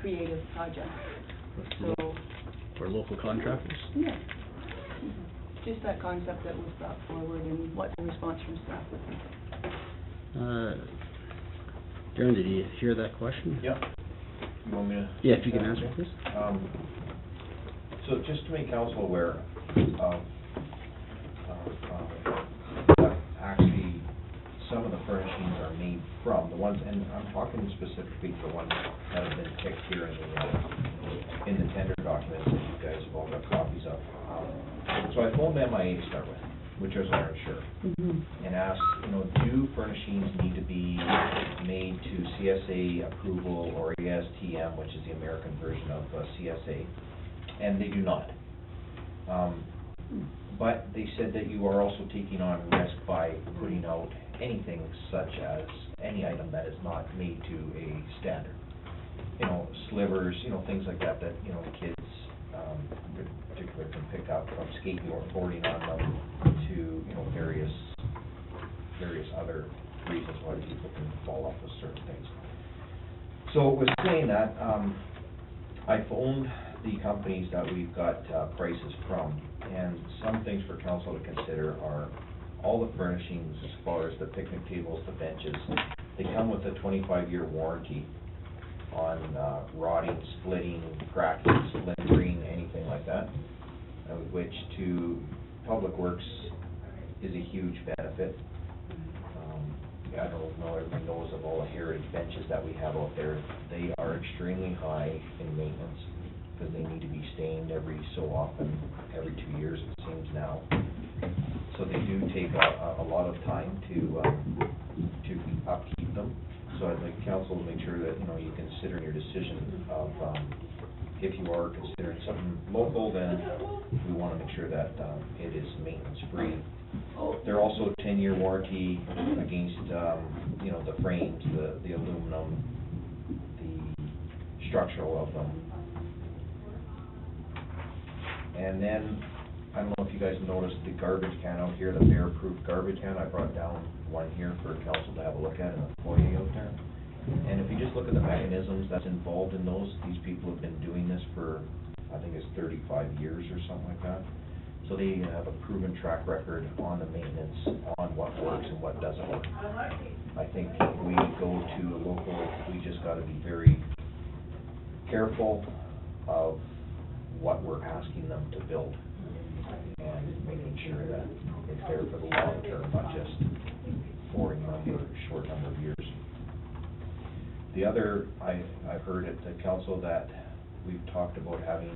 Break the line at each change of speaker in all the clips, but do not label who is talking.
creative project. So,
For local contractors?
yeah, just that concept that was brought forward and what the response from staff was.
Uh, Darren, did you hear that question?
Yeah. You want me to?
Yeah, if you can answer, please.
Um, so just to make council aware of, of, uh, actually, some of the furnishings are made from, the ones, and I'm talking specifically the ones that have been picked here in the, in the tender documents that you guys have all got copies of. Um, So I phoned MIA to start with, which is our insurer and asked, you know, do furnishings need to be made to CSA approval or E ASTM, which is the American version of uh, CSA? And they do not. Um, But they said that you are also taking on risk by putting out anything such as any item that is not made to a standard. You know, slivers, you know, things like that, that, you know, kids, um, in particular can pick up from skating or boarding on them to, you know, various, various other reasons why people can fall off of certain things. So with saying that, um, I phoned the companies that we've got uh, prices from, and some things for council to consider are all the furnishings as far as the picnic tables, the benches, they come with a twenty-five year warranty on uh, rotting, splitting, cracking, splintering, anything like that, uh, which to Public Works is a huge benefit. Um, I don't know, everybody knows of all the heritage benches that we have out there. They are extremely high in maintenance because they need to be stained every so often, every two years it seems now. So they do take a, a- a lot of time to, uh, to upkeep them. So I'd like council to make sure that, you know, you consider in your decision of, um, if you are considering something local, then we want to make sure that, um, it is maintenance-free they're also ten-year warranty against, um, you know, the frames, the, the aluminum, the structural of them. And then, I don't know if you guys noticed the garbage can out here, the bear-proof garbage can, I brought down one here for council to have a look at in the foyer out there. And if you just look at the mechanisms that's involved in those, these people have been doing this for, I think it's thirty-five years or something like that. So they have a proven track record on the maintenance, on what works and what doesn't work. I think we go to a local, we just gotta be very careful of what we're asking them to build and making sure that it's there for the long term, not just for a number, short number of years. The other, I, I've heard at the council that we've talked about having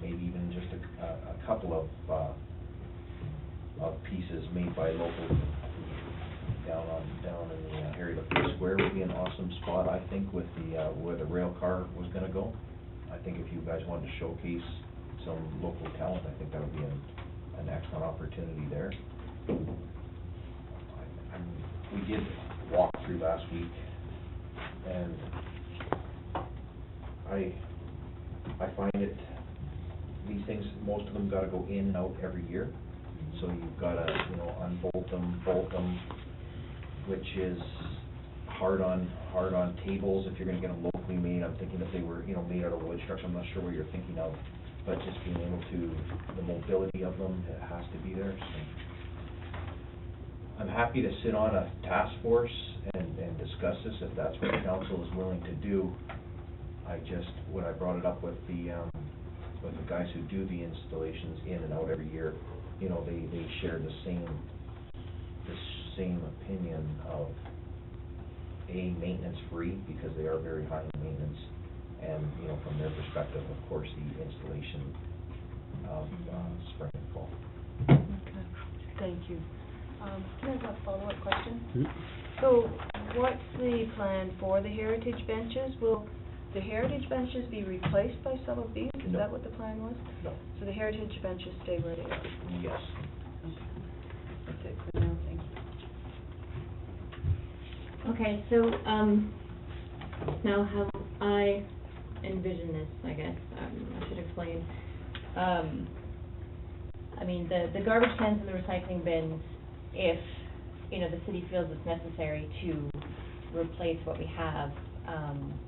maybe even just a, a a couple of, uh, of pieces made by local down on, down in the uh, area of the square would be an awesome spot, I think, with the, uh, where the rail car was gonna go. I think if you guys wanted to showcase some local talent, I think that would be an, an excellent opportunity there. I- I'm- We did walk through last week, and I, I find it, these things, most of them gotta go in and out every year. So you've gotta, you know, unbolt them, bolt them, which is hard on, hard on tables if you're gonna get them locally made. I'm thinking if they were, you know, made out of wood structure, I'm not sure what you're thinking of, but just being able to, the mobility of them, it has to be there, so. I'm happy to sit on a task force and, and discuss this if that's what the council is willing to do. I just, when I brought it up with the, um, with the guys who do the installations in and out every year, you know, they, they share the same, the same opinion of, A, maintenance-free, because they are very high in maintenance, and, you know, from their perspective, of course, the installation of, uh, spring and fall.
Okay, thank you. Um, can I have a follow-up question?
Hmm?
So what's the plan for the heritage benches? Will the heritage benches be replaced by some of these? Is
No.
that what the plan was?
No.
So the heritage benches stay where they are?
Yes.
That's it for now, thank you.
Okay, so, um, now how I envision this, I guess, um, I should explain. Um, I mean, the, the garbage cans and the recycling bins, if, you know, the city feels it's necessary to replace what we have, um,